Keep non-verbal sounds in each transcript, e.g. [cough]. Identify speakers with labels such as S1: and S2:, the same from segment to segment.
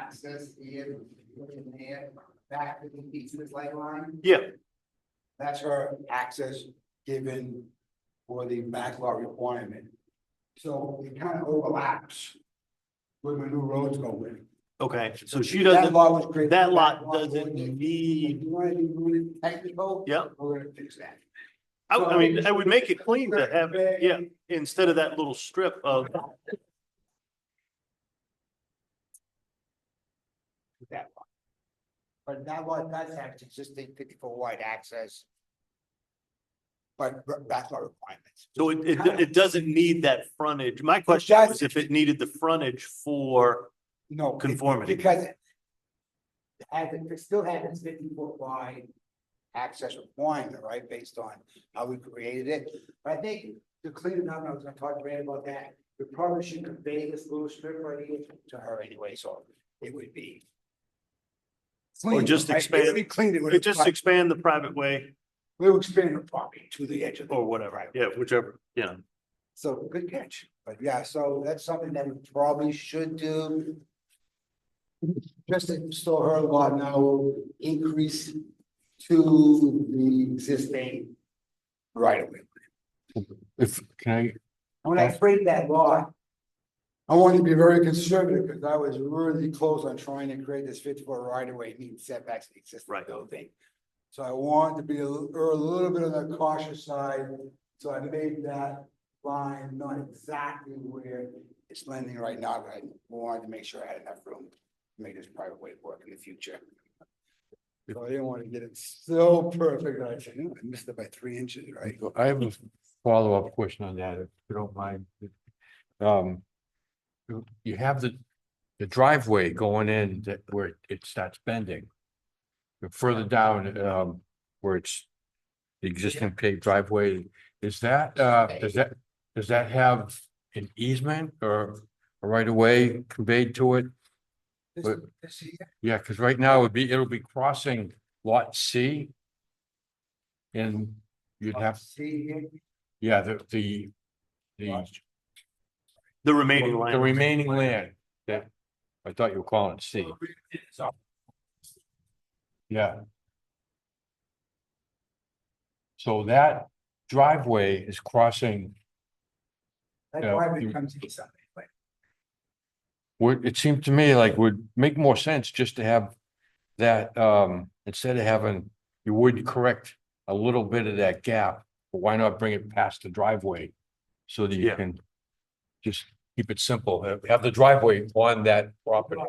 S1: access in, in there, back to the easement light line.
S2: Yeah,
S1: That's her access given for the backlot requirement. So it kind of overlaps with my new roads go in.
S2: okay, so she
S1: That
S2: doesn't,
S1: lot was created.
S2: that lot
S1: was
S2: doesn't
S1: created. If
S2: need,
S1: you want to be really technical.
S2: Yeah.
S1: We're gonna fix that.
S2: I, I mean, I would make it clean to have, yeah, instead of that little strip of,
S1: That lot. But that lot does have its existing fifty-four wide access. But that's our requirements.
S2: so it, it, it doesn't need that frontage. My question was if it needed the frontage for
S1: No. it-
S2: conformity.
S1: Because it has, it still has its fifty foot wide access requirement, right, based on how we created it. But I think to clean it up, I was gonna talk to Brad about that, we probably should convey this little strip right here to her anyway, so it would be.
S2: Or just
S1: clean, right? It would be clean, it would.
S2: It just expand the private way
S1: We'll expand the property to the edge of. the-
S2: or whatever, yeah, whichever, yeah.
S1: So good catch, but yeah, so that's something that we probably should do. Just to store her lot now will increase to the existing right of way.
S3: If, can I,
S1: And When I created that lot. I wanted to be very conservative because I was really close on trying to create this fifty foot right of way, meet setbacks to the existing
S2: Right.
S1: building. So I wanted to be a little, err a little bit on the cautious side, so I made that line not exactly where it's landing right now, but I wanted to make sure I had enough room to make this private way work in the future. So I didn't want to get it so perfect, I said, "No, I missed it by three inches, right?
S3: I have a follow-up question on that, if you don't mind. Um, you- you have the, the driveway going in that where it starts bending. But Further down, um, where it's the existing paved driveway, is that, uh, does that, does that have an easement or a right of way conveyed to it?
S1: This-
S3: But-
S1: this here,
S3: Yeah, because right now it'd be, it'll be crossing lot C. And you'd have,
S1: See here?
S3: yeah, the, the, the.
S2: The remaining
S3: The
S2: line,
S3: remaining land, yeah. I thought you were calling it C. Yeah. So that driveway is crossing,
S1: That
S3: Yeah,
S1: driveway
S3: you-
S1: comes in something, but
S3: would, it seemed to me like would make more sense just to have that, um, instead of having, you would correct a little bit of that gap, but why not bring it past the driveway? So that you
S2: Yeah.
S3: can just keep it simple, have- have the driveway on that property.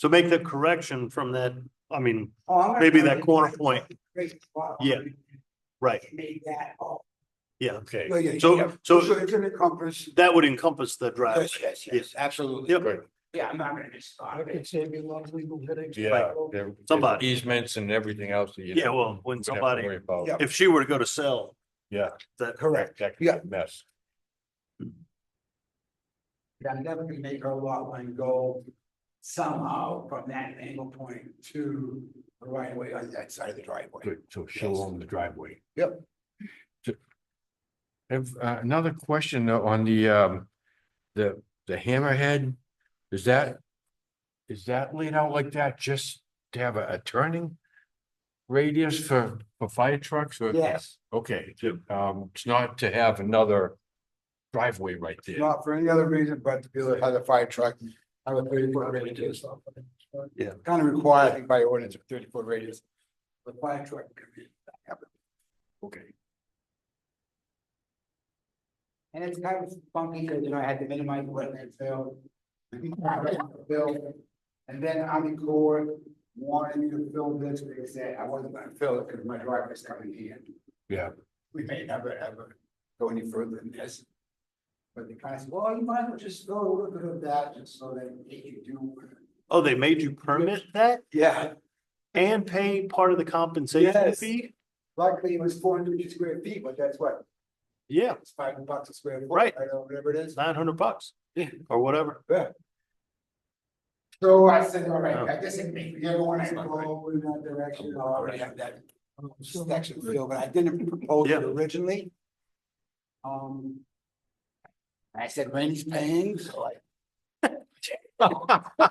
S2: so make the correction from that, I mean,
S1: Oh, I'm gonna
S2: Maybe
S1: tell
S2: that
S1: you,
S2: corner
S1: that's
S2: point.
S1: a great spot.
S2: Yeah. right,
S1: Made that, oh.
S2: yeah, okay.
S1: yeah, yeah,
S2: So-
S1: yeah.
S2: so-
S1: it's an encompass.
S2: That would encompass the driveway.
S1: Yes, yes,
S2: Yeah.
S1: yes, absolutely.
S2: Yep.
S3: Good.
S1: Yeah, I'm not gonna just stop it.
S4: save you a lot of legal headaches.
S3: Yeah. there- there's
S2: Somebody.
S3: Easements and everything else that you.
S2: Yeah, well, when
S3: would have to
S2: somebody,
S3: worry about.
S1: Yeah.
S2: if she were to go to sell,
S3: Yeah.
S2: that,
S1: Correct.
S3: That could be a mess.
S1: Yeah, I'm definitely gonna make her lot line go somehow from that angle point to the right way on that side of the driveway.
S3: Good, so she'll
S1: Yes.
S3: own the driveway.
S1: Yep.
S3: Ju- Have, uh, another question though on the, um, the, the hammerhead, is that, is that laid out like that just to have a, a turning radius for, for fire trucks or?
S1: Yes,
S3: Okay, ju- um, it's not to have another driveway right there.
S1: not for any other reason but to be able to have a fire truck, have a thirty foot radius.
S2: Yeah.
S1: Kind of required, I think, by ordinance, a thirty foot radius. The fire truck can be
S3: Okay.
S1: And it's kind of funky, because you know, I had to minimize wetland fill. Fill, and then Army Corps wanted me to fill this, but they said I wasn't gonna fill it because my driveway's coming in.
S3: Yeah.
S1: We may never ever go any further than this. But they kind of said, well, you might as well just go a little bit of that, just so that they can do.
S2: oh, they made you permit that
S1: Yeah,
S2: and pay part of the compensation
S1: Yes.
S2: fee?
S1: luckily it was four hundred square feet, but that's what,
S2: Yeah,
S1: it's five bucks a square foot.
S2: Right.
S1: I don't know, whatever it is.
S2: nine hundred bucks. Yeah. Or
S1: [laughs]
S2: whatever.
S1: So I said, all right, I guess it may, you want to go in that direction, I already have that. um, Section filled, but I didn't propose it
S2: Yeah.
S1: originally. Um. I said Randy's paying, so I